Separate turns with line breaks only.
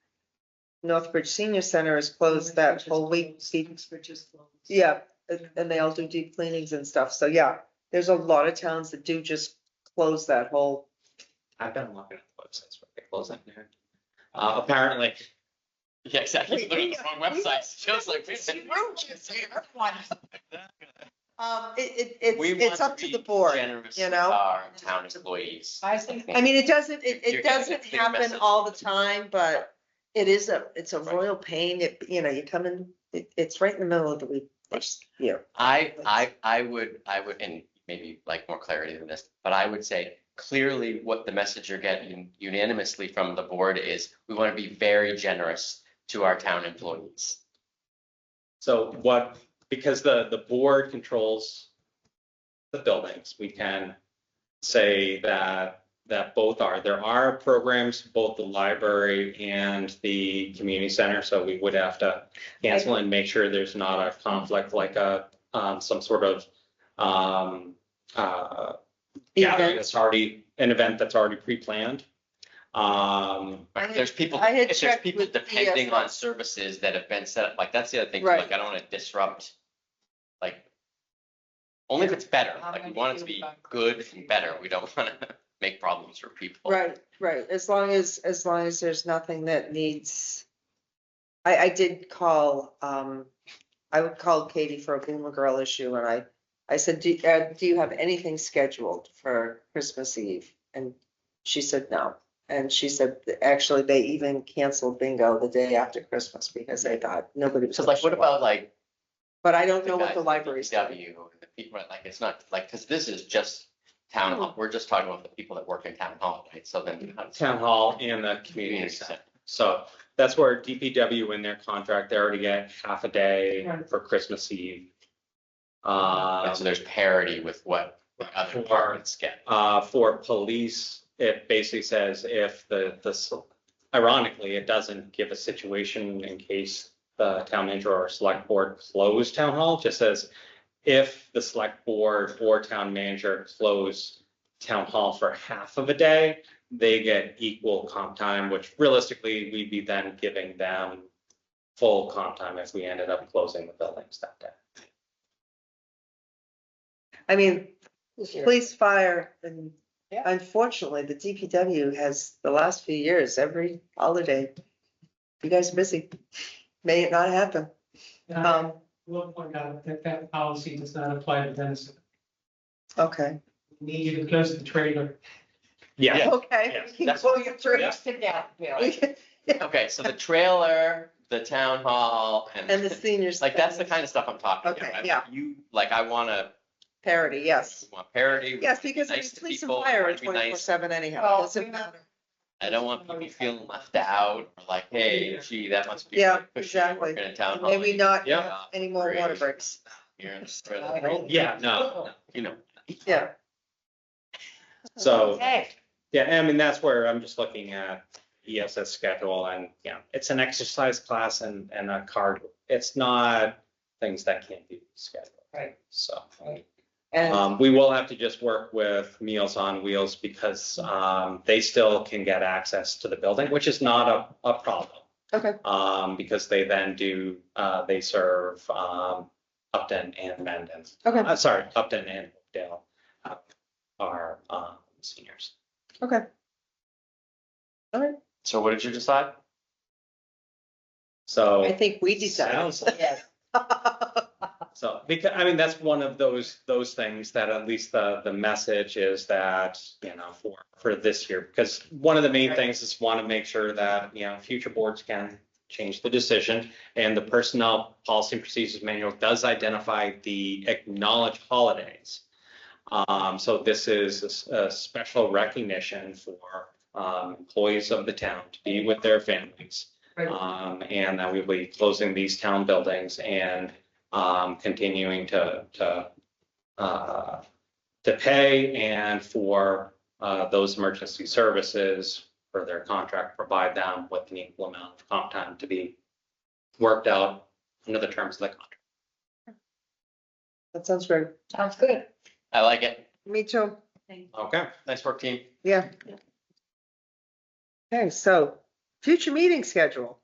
Northbridge Senior Center is closed that whole week. deep-
Oxford just closed.
Yeah, and, and they all do deep cleanings and stuff. So yeah, there's a lot of towns that do just close that whole.
I've been looking at the websites where they close that down. Uh, apparently. Yeah, exactly.
We-
Looking at the wrong
we-
websites. Feels like. we've
You
been-
were just here once.
Um, it, it,
We
it's,
want
it's up to
be
the board.
generous
you
with
know?
Our town employees.
I think.
I mean, it doesn't, it,
You're
it
getting a
doesn't
clear
happen
message.
all the time, but it is a, it's a
Right.
royal pain. It, you know, you come in, it, it's right in the middle of the week. this year.
I, I, I would, I would, and maybe like more clarity than this, but I would say clearly what the message you're getting unanimously from the board is, we want to be very generous to our town employees.
So what, because the, the board controls the buildings, we can say that, that both are, there are programs, both the library and the community center, so we would have to cancel and make sure there's not a conflict like a, um, some sort of, um, uh, gathering
Event.
that's already, an event that's already pre-planned. Um,
Right, If there's people,
I had
if there's
checked
people
with
depending on
DSS.
services that have been set up, like, that's the other thing, too,
Right.
like, I don't want to disrupt, like, only if it's better, like, we want it to be good and better, we don't want to make problems for people.
Right, right. As long as, as long as there's nothing that needs. I, I did call, um, I would call Katie for a Boomer Girl issue and I, I said, do, uh, do you have anything scheduled for Christmas Eve? And she said, no. And she said, actually, they even canceled bingo the day after Christmas because they thought nobody was.
So like, what
gonna show up.
about like
But I don't know
guys
what the
at
library's doing.
DPW, the people, right, like, it's not, like, because this is just town, hall. we're just talking about the people that work in town hall, right? So then. how does-
town hall and the community
Community
center.
center.
So that's where DPW in their contract, they already get half a day
Right.
for Christmas Eve.
Right,
Uh,
So there's parity with what other
Or-
departments get.
uh, for police, it basically says if the, the, s- ironically, it doesn't give a situation in case the town manager or select board close town hall, It just says if the select board or town manager close town hall for half of a day, they get equal comp time, which realistically, we'd be then giving them full comp time if we ended up closing the buildings that day.
I mean,
This year.
Police, fire, and
Yeah.
unfortunately, the DPW has, the last few years, every holiday, you guys are busy. May it not happen.
And I
Um,
will point out that that policy does not apply to Denison.
okay.
We Need you to close the trailer.
Yeah.
Okay.
Yeah.
we can
That's-
pull you through.
Yeah.
Sit down, Bill.
We can-
Okay, so the trailer, the town hall,
And the
and
seniors.
like, that's the kind of stuff I'm talking
Okay,
about. I-
yeah.
You, like, I want to,
Parity, yes.
want parity. we
Yes,
wanna be
because I mean,
nice to
police and
people, we
fire
wanna
are
be
twenty-four
nice.
seven anyhow.
Well,
Doesn't
we-
matter.
I don't want people feeling left out, or like, hey, gee, that must be.
Yeah,
really cushy, you're
exactly.
working in town hall.
Maybe not
Yeah.
have any more water breaks.
You're in-
Yeah, no,
You know.
Yeah.
so.
Okay,
Yeah, and I mean, that's where I'm just looking at ESS schedule and, yeah, it's an exercise class and, and a card. It's not things that can't be scheduled.
Right.
So,
And
um, we will have to just work with Meals on Wheels because, um, they still can get access to the building, which is not a, a problem.
Okay.
Um, because they then do, uh, they serve, um, Upton and Mendon.
Okay.
Uh, sorry, Upton and Dale uh, are, um, seniors.
So what did you decide?
So.
I think we decided.
Sounds like-
yes.
So, because, I mean, that's one of those, those things that at least the, the message is that, you know, for, for this year. Because one of the main
Right.
things is want to make sure that, you know, future boards can change the decision. And the personnel policy and procedures manual does identify the acknowledged holidays. Um, so this is a s- a, special recognition for, um, employees of the town to be with their families.
Right.
Um, and that we'll be closing these town buildings and, um, continuing to, to, uh, to pay and for, uh, those emergency services for their contract, provide them with an equal amount of comp time to be worked out under the terms of the contract.
That sounds great.
Sounds good.
I like it.
Me too.
Okay.
Nice work, team.
Yeah. Okay, so future meeting schedule.